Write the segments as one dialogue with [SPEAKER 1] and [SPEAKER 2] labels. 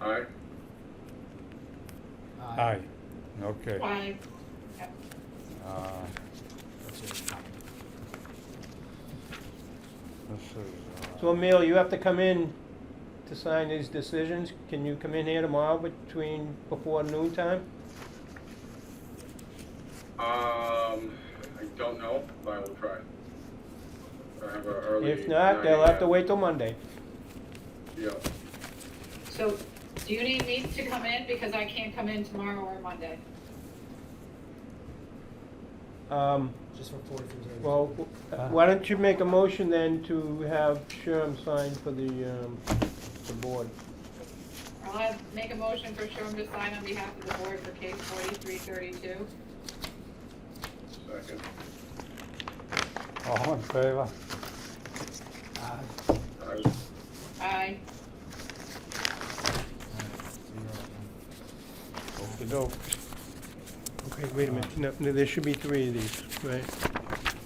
[SPEAKER 1] Aye.
[SPEAKER 2] Aye, okay.
[SPEAKER 3] Aye.
[SPEAKER 2] Uh, This is,
[SPEAKER 4] So
[SPEAKER 2] uh,
[SPEAKER 4] Emil, you have to come in to sign these decisions. Can you come in here tomorrow between, before noon time?
[SPEAKER 2] uh,
[SPEAKER 1] Um, I don't know, but I will try. I have a early.
[SPEAKER 4] If not, they'll
[SPEAKER 1] 9
[SPEAKER 4] have to
[SPEAKER 1] a.m.
[SPEAKER 4] wait till Monday.
[SPEAKER 1] Yeah,
[SPEAKER 3] So do you need me to come in because I can't come in tomorrow or Monday?
[SPEAKER 4] Um,
[SPEAKER 5] Just report if there's.
[SPEAKER 4] well, w- why don't you make a motion then to have Sherm sign for the, um, the board?
[SPEAKER 3] I'll have, make a motion for Sherm to sign on behalf of the board for case forty-three thirty-two.
[SPEAKER 1] second.
[SPEAKER 2] all in favor?
[SPEAKER 5] Aye.
[SPEAKER 1] Aye.
[SPEAKER 3] Aye.
[SPEAKER 2] Okey-doke.
[SPEAKER 4] Okay, wait a minute. No, no, there should be three of these, right?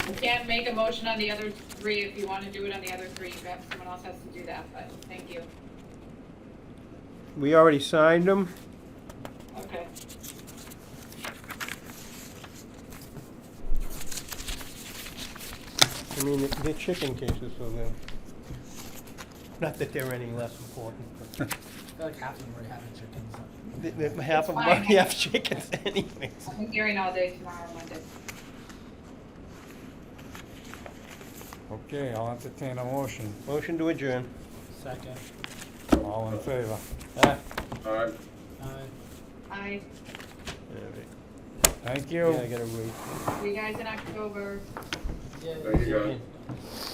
[SPEAKER 3] You can't make a motion on the other three if you want to do it on the other three. You have- Someone else has to do that, but thank you.
[SPEAKER 4] We already signed them.
[SPEAKER 3] Okay.
[SPEAKER 4] I mean, they- they're chicken cases, so they're, not that they're any less important, but
[SPEAKER 5] I feel like half of them already have it checked in.
[SPEAKER 4] they- they- half of them
[SPEAKER 3] Fine.
[SPEAKER 4] already have chickens anyways.
[SPEAKER 3] I'll be hearing all day tomorrow, Monday.
[SPEAKER 2] Okay, I'll entertain a motion.
[SPEAKER 4] Motion to adjourn.
[SPEAKER 5] Second.
[SPEAKER 2] All in favor?
[SPEAKER 4] Ah,
[SPEAKER 1] Aye.
[SPEAKER 5] Aye.
[SPEAKER 3] Aye.
[SPEAKER 2] Thank
[SPEAKER 4] Yeah,
[SPEAKER 2] you.
[SPEAKER 4] I gotta wait.
[SPEAKER 3] See you guys in October.
[SPEAKER 5] Yeah.
[SPEAKER 1] There you go.